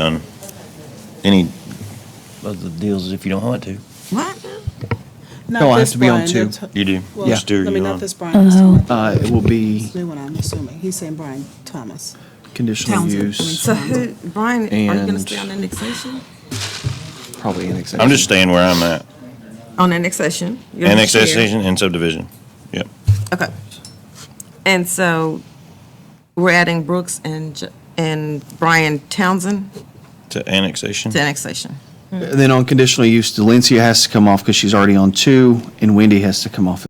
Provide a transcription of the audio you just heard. done Um, any of the deals if you don't want to. What? No, I Not have this to be on Brian. two. that's- You do. well, Just do I you mean, on. not this Brian. this Oh. one. Uh, It will be This New one, I'm assuming. He's saying Brian Thomas. conditional Townsend, I mean, use, So so- who, Brian, are you gonna And- stay on annexation? probably annexation. I'm just staying where I'm at. On annexation? You're the chair. Annexation and subdivision. Yep. Okay. And so we're adding Brooks and, J- and Brian Townsend To annexation. to annexation. Then on conditional use, Delencia has to come off because she's already on two, and Wendy has to come off